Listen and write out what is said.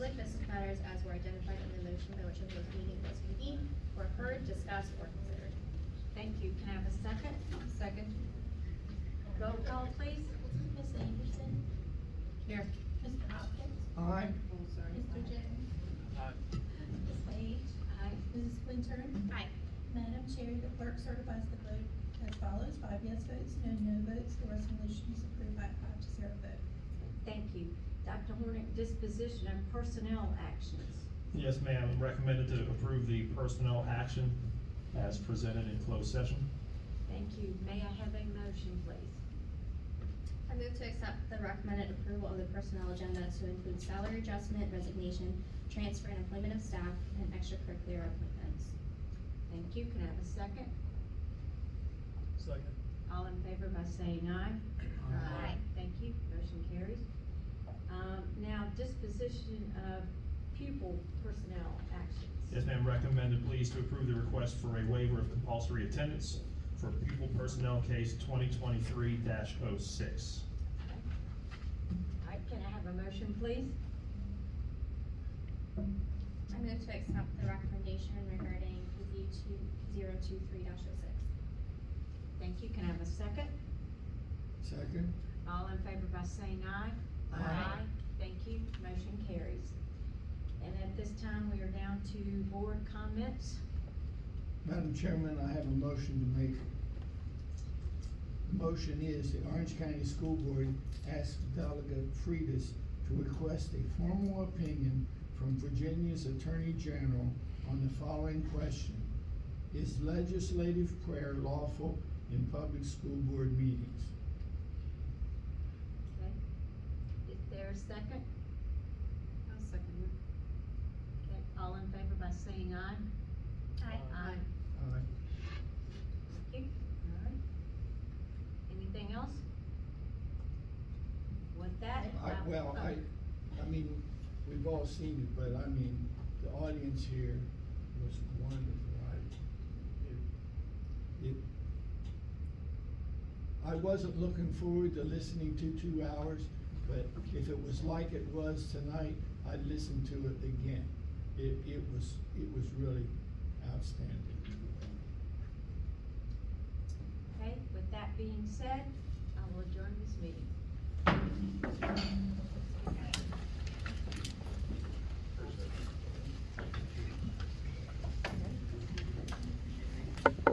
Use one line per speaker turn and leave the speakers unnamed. resolution by which a closed meeting was convened or heard, discussed, or considered.
Thank you. Can I have a second? Second. Roll call, please.
Miss Anderson?
Here.
Mr. Hopkins?
Aye.
Mr. Jones? Ms. Page?
Aye.
Mrs. Winter?
Aye.
Madam Chair, the clerk certifies the vote as follows, five yes votes, no no votes, the resolution is approved by a five to zero vote.
Thank you. Dr. Hornick, disposition and personnel actions.
Yes, ma'am, recommended to approve the personnel action as presented in closed session.
Thank you. May I have a motion, please?
I move to accept the recommended approval of the personnel agenda to include salary adjustment, resignation, transfer and employment of staff, and extracurricular appointments.
Thank you. Can I have a second?
Second.
All in favor by saying aye?
Aye.
Thank you, motion carries. Um, now disposition of pupil personnel actions.
Yes, ma'am, recommended please to approve the request for a waiver of compulsory attendance for pupil personnel case twenty twenty-three oh 6
All right, can I have a motion, please?
I move to accept the recommendation regarding PZ two, zero two three dash oh six.
Thank you, can I have a second?
Second.
All in favor by saying aye?
Aye.
Thank you, motion carries. And at this time, we are down to board comments.
Madam Chairman, I have a motion to make. The motion is the Orange County School Board asks Delegate Freitas to request a formal opinion from Virginia's Attorney General on the following question. Is legislative prayer lawful in public school board meetings?
Okay. Is there a second? I'll second Okay, all in favor by saying aye?
Aye.
Aye.
Aye.
Thank you. All right. Anything else? With that? oh,
I,
I-
well, I, I mean, we've all seen it, but I mean, the audience here was wonderful, I, it, it, I wasn't looking forward to listening to two hours, but if it was like it was tonight, I'd listen to it again. It, it was, it was really outstanding.
Okay, with that being said, I will adjourn this meeting.